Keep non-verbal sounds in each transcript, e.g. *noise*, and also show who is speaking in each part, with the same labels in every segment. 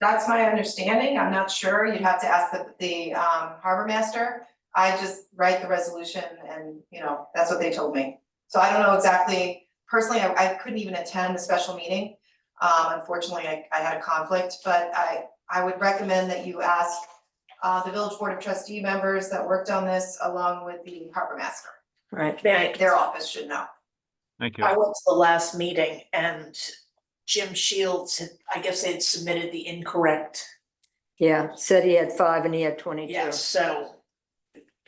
Speaker 1: That's my understanding, I'm not sure, you'd have to ask the, the, um, harbor master. I just write the resolution and, you know, that's what they told me. So I don't know exactly, personally, I, I couldn't even attend the special meeting. Um, unfortunately, I, I had a conflict, but I, I would recommend that you ask, uh, the village board of trustee members that worked on this along with the harbor master.
Speaker 2: Right.
Speaker 1: They- Their office should know.
Speaker 3: Thank you.
Speaker 2: I went to the last meeting and Jim Shields, had- I guess they had submitted the incorrect,
Speaker 4: Yeah, said he had five and he had twenty-two.
Speaker 2: yes, so.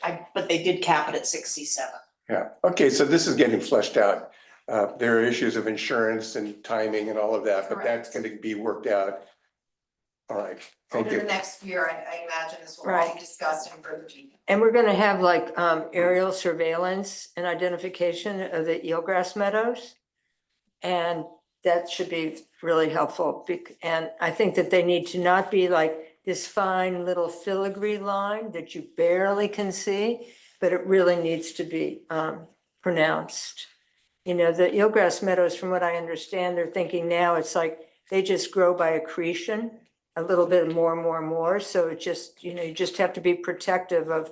Speaker 2: I, but they did cap it at sixty-seven.
Speaker 5: Yeah, okay, so this is getting fleshed out. Uh, there are issues of insurance and timing and all of that, but that's
Speaker 1: Correct.
Speaker 5: gonna be worked out. All right, thank
Speaker 1: Over the
Speaker 5: you.
Speaker 1: next year, I, I imagine this will all
Speaker 4: Right.
Speaker 1: be discussed in further detail.
Speaker 4: And we're gonna have like um aerial surveillance and identification of the eelgrass meadows. And that should be really helpful, bec- and I think that they need to not be like this fine little filigree line that you barely can see, but it really needs to be um pronounced. You know, the eelgrass meadows, from what I understand, they're thinking now, it's like they just grow by accretion a little bit more, more, more. So it just, you know, you just have to be protective of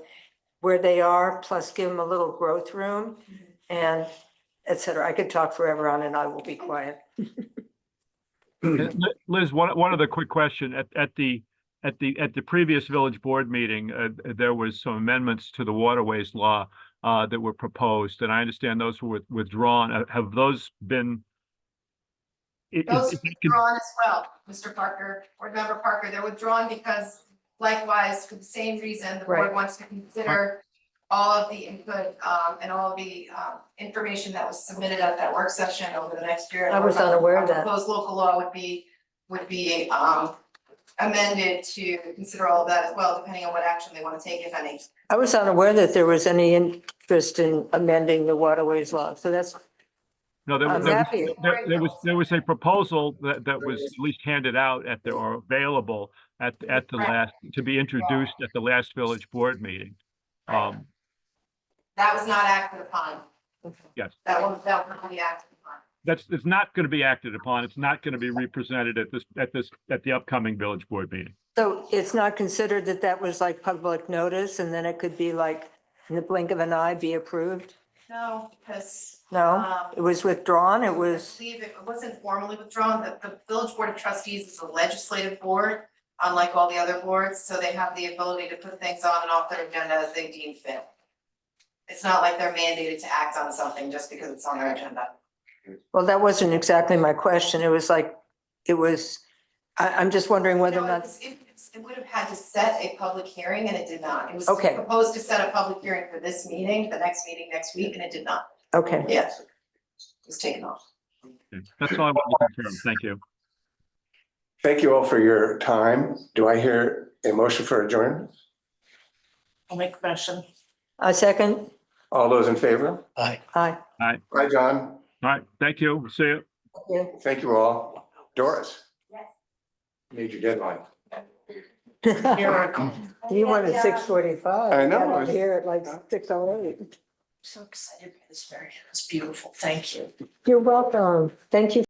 Speaker 4: where they are, plus give them a little growth room and et cetera. I could talk forever on and I will be quiet.
Speaker 3: And Uh, Li- Liz, one, one other quick question. At, at the, at the, at the previous village board meeting, uh, there was some amendments to the waterways law uh, that were proposed, and I understand those were withdrawn. Uh, Have those been? i- i-
Speaker 1: Those
Speaker 3: if you could-
Speaker 1: withdrawn as well, Mr. Parker, Board Member Parker, they're withdrawn because likewise, for the same reason, the board
Speaker 4: Right.
Speaker 1: wants to consider all of the input, um, and all of the, um, information that was submitted at that work session over the next year.
Speaker 4: I was unaware of that.
Speaker 1: Proposed local law would be, would be, um, amended to consider all of that as well, depending on what action they want to take, if any.
Speaker 4: I was unaware that there was any interest in amending the waterways law. So that's,
Speaker 3: No, there
Speaker 4: I'm
Speaker 3: was, there was-
Speaker 4: happy.
Speaker 3: there- there was, there was a proposal that, that was at least handed out at the, or available at, at the
Speaker 1: Right.
Speaker 3: last, to be introduced at the last village board meeting. Um,
Speaker 1: That was not acted upon.
Speaker 3: Yes.
Speaker 1: That was, that was not acted upon.
Speaker 3: that's, it's not going to be acted upon. It's not going to be represented at this, at this, at the upcoming village board meeting.
Speaker 4: so it's not considered that that was like public notice and then it could be like in the blink of an eye be approved?
Speaker 1: No, because
Speaker 4: No,
Speaker 1: Um,
Speaker 4: it was withdrawn. It
Speaker 1: I
Speaker 4: was,
Speaker 1: believe it wasn't formally withdrawn, the, the village board of trustees is a legislative board, unlike all the other boards, so they have the ability to put things on and off their agenda as they deem fit. It's not like they're mandated to act on something just because it's on their agenda.
Speaker 4: well, that wasn't exactly my question. It was like, it was, I, I'm just wondering whether or
Speaker 1: No,
Speaker 4: not
Speaker 1: it was- It it would have had to set a public hearing and it did not. It was
Speaker 4: Okay.
Speaker 1: proposed to set a public hearing for this meeting, the next meeting next week, and it did not.
Speaker 4: Okay,
Speaker 1: Yes. It was taken off.
Speaker 3: Okay, That's all I wanted to confirm. Thank you.
Speaker 5: Thank you all for your time. Do I hear a motion for adjournment?
Speaker 2: I'll make a motion.
Speaker 4: a Uh, second,
Speaker 5: All those in favor?
Speaker 4: aye. *laughs*
Speaker 5: Hi, John.
Speaker 3: All right, thank you. See you.
Speaker 4: Yeah.
Speaker 5: Thank you all. Doris?
Speaker 1: Yes.
Speaker 5: Major deadline.
Speaker 2: Miracle.
Speaker 4: You wanted six forty-five.
Speaker 5: I know, I
Speaker 4: I'm
Speaker 5: was-
Speaker 4: here at like six oh eight.
Speaker 2: So excited by this variant. It's beautiful. Thank you.
Speaker 4: You're welcome. Thank you